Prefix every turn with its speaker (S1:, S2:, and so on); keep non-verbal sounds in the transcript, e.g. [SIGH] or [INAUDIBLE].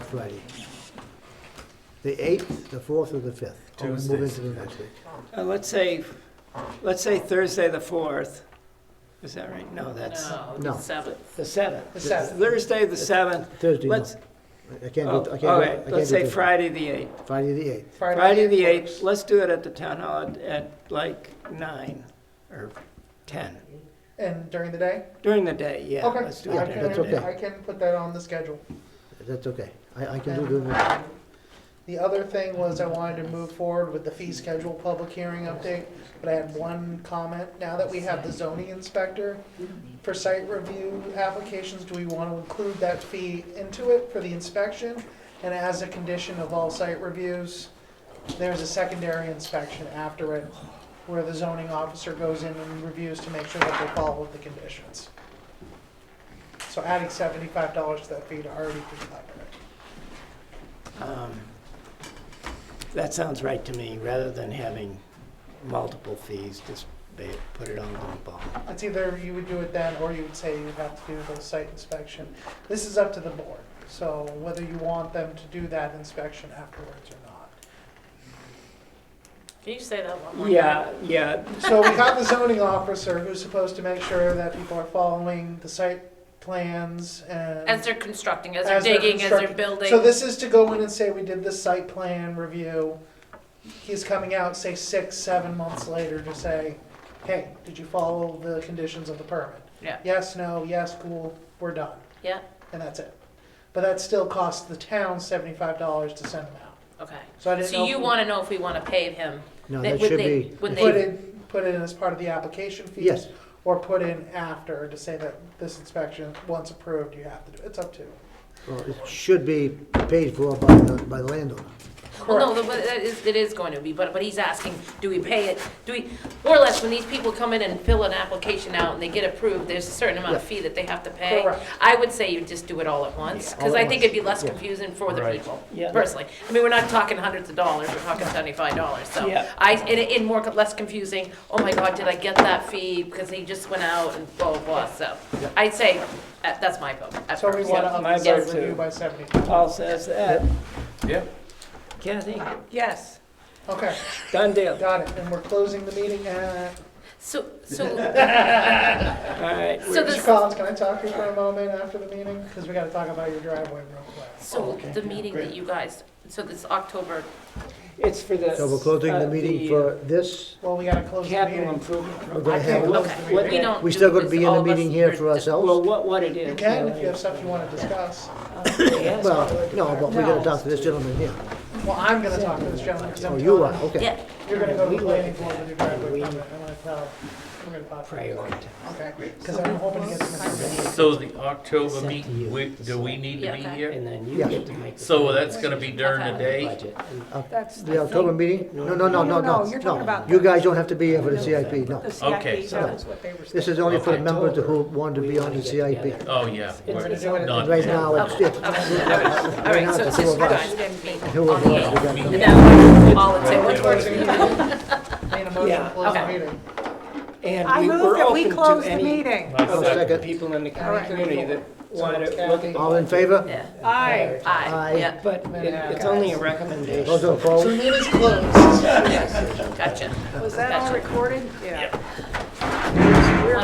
S1: Friday. The eighth, the fourth, or the fifth? Or we Move
S2: Tuesdays.
S1: into the next week.
S3: Uh, Let's say, let's say Thursday, the 4th. Is that right? No, that's
S1: No.
S4: No, Oh, seventh.
S3: the 7th.
S5: The seventh.
S3: Thursday, the 7th.
S1: Thursday, no.
S3: Let's,
S1: I can't do, I
S3: oh,
S1: can't do.
S3: all
S1: I
S3: right,
S1: can't
S3: let's
S1: do
S3: say
S1: Thursday.
S3: Friday, the 8th.
S1: Friday the eighth.
S3: Friday, the
S5: works.
S3: 8th, let's do it at the town hall at- at like 9 or 10.
S5: And during the day?
S3: During the day, yeah.
S5: Okay.
S3: let's do it
S5: I
S3: during
S1: That's
S3: the
S5: can,
S3: day.
S1: okay.
S5: I can put that on the schedule.
S1: That's okay. I, I can do the next.
S5: And The other thing was I wanted to move forward with the fee schedule public hearing update, but I had one comment. Now that we have the zoning inspector for site review applications, do we want to include that fee into it for the inspection? And as a condition of all site reviews, there's a secondary inspection after it where the zoning officer goes in and reviews to make sure that they follow the conditions. So adding seventy-five dollars to that fee to already be covered.
S3: Um, That sounds right to me, rather than having multiple fees, just ba- put it all in one ball.
S5: It's either you would do it then, or you would say you have to do the site inspection. This is up to the board, so whether you want them to do that inspection afterwards or not.
S4: Can you say that one more time?
S3: Yeah, yeah,
S5: So we have the zoning officer who's supposed to make sure that people are following the site plans and.
S4: As they're constructing, as
S5: As they're
S4: they're digging, as they're
S5: constructing.
S4: building.
S5: So this is to go in and say, we did the site plan review. He's coming out, say, six, seven months later to say, hey, did you follow the conditions of the permit?
S4: Yeah.
S5: Yes, no, yes, cool, we're done.
S4: Yeah,
S5: and that's it. But that still costs the town seventy-five dollars to send them out.
S4: okay.
S5: So I didn't know.
S4: So you
S5: if we
S4: wanna know if we wanna pay him?
S1: No,
S4: They-
S1: that
S4: would
S1: should
S4: they-
S1: be.
S4: would
S5: Put
S4: they-
S5: in, put in as part of the application fees.
S1: Yes.
S5: Or put in after to say that this inspection, once approved, you have to do, it. it's up to. you.
S1: Well, it should be paid for by the, by the landowner.
S4: Well, no, the- but it is, it is going to be, but, but he's asking, do we pay it? Do we, more or less, when these people come in and fill an application out and they get approved, there's a certain amount of
S1: Yeah.
S4: fee that they have to pay.
S5: Correct.
S4: I would say you just do it all at once,
S1: all
S4: cause
S1: at
S4: I think
S1: once.
S4: it'd be less
S1: Yeah.
S4: confusing for the
S2: Right.
S4: people,
S3: Yeah.
S4: personally. I mean, we're not talking hundreds of dollars, we're talking seventy-five dollars, so.
S3: Yeah.
S4: I, and, and more, less confusing, oh my god, did I get that fee, because they just went out and blah, blah, blah, so. I'd say, uh, that's my vote. at
S5: So we
S4: first.
S5: wanna
S3: yeah,
S5: up
S3: my
S5: the site
S3: vote
S5: review
S3: too.
S5: by seventy-five.
S3: Paul says that.
S2: Yeah.
S3: Kathy?
S4: Yes.
S5: Okay,
S3: Done deal.
S5: got it, and we're closing the meeting at,
S4: So,
S1: [LAUGHS]
S4: so.
S3: All right.
S4: [LAUGHS] So
S5: Mr.
S4: this-
S5: Collins, can I talk to you for a moment after the meeting? Cause we gotta talk about your driveway real quick.
S1: Oh,
S4: So the meeting that you guys, so this October,
S3: It's for the.
S1: So we're closing the
S3: uh,
S1: meeting
S3: uh,
S1: for this.
S5: Well, we gotta close the
S3: Capital
S5: meeting.
S3: improvement.
S1: We're
S3: program.
S1: gonna
S5: I
S1: have,
S5: can't close
S4: okay,
S5: the
S4: we
S3: what-
S5: meeting.
S4: don't.
S1: we
S4: do
S1: still gonna
S4: this,
S1: be in
S4: all
S1: a
S4: of
S1: meeting
S4: us
S1: here
S4: are
S1: for
S4: di-
S3: Well,
S1: ourselves?
S3: what, what it is.
S5: You can, if you have
S3: uh,
S5: stuff you wanna discuss.
S3: yes.
S1: Well, no, but we're gonna talk to this gentleman here.
S5: Well, I'm gonna talk to this gentleman, cause I'm
S1: Oh,
S5: telling
S1: you are,
S5: him.
S1: okay.
S4: Yeah,
S5: You're gonna go to the planning board with your driveway
S3: We-
S5: permit, I'm gonna tell, we're gonna talk.
S3: Priority.
S5: Okay, cause I'm hoping to get some information.
S6: So the October
S3: It's up to you.
S6: meeting, we, do we need to
S4: Yeah,
S6: be
S4: okay.
S6: here?
S3: And then you
S1: Yeah.
S3: get to make. the
S6: So
S3: final
S6: that's gonna be during the day?
S3: budget. And
S7: That's
S1: Uh, The October meeting? No, no, no, no, no.
S7: No, you're talking about
S1: You
S7: the-
S1: guys don't have to be here for the CIP, no.
S7: the CIP,
S6: Okay.
S7: that was what they were
S1: This
S7: saying.
S1: is only for the
S6: Okay.
S1: members who want to be on the
S3: We wanna get
S1: CIP.
S3: together.
S6: Oh, yeah.
S5: We're
S6: we're
S5: gonna do it.
S6: not-
S1: Right now, it's, it's [LAUGHS]
S4: all right, so it's
S1: Two
S4: just
S1: of
S4: you
S1: us.
S4: guys didn't meet
S1: two
S4: on
S1: of us,
S4: the
S1: we
S4: eighth.
S1: got
S4: And
S1: them.
S4: then all in favor, which works.
S5: [LAUGHS] Need a motion
S3: Yeah,
S5: to close the
S4: okay.
S5: meeting.
S7: I
S3: And we
S7: move
S3: were
S7: that we
S3: open
S7: close
S3: to
S7: the
S3: any
S7: meeting.
S3: Oh,
S1: I'll second.
S3: people in the
S5: All right.
S3: community that want to look at.
S1: All in favor?
S4: Yeah,
S7: Aye.
S4: aye, yeah,
S3: But it- it's only a
S1: Those
S3: recommendation.
S1: opposed? [LAUGHS]
S5: Meeting's closed.
S4: gotcha.
S7: Was that all recorded? Yeah.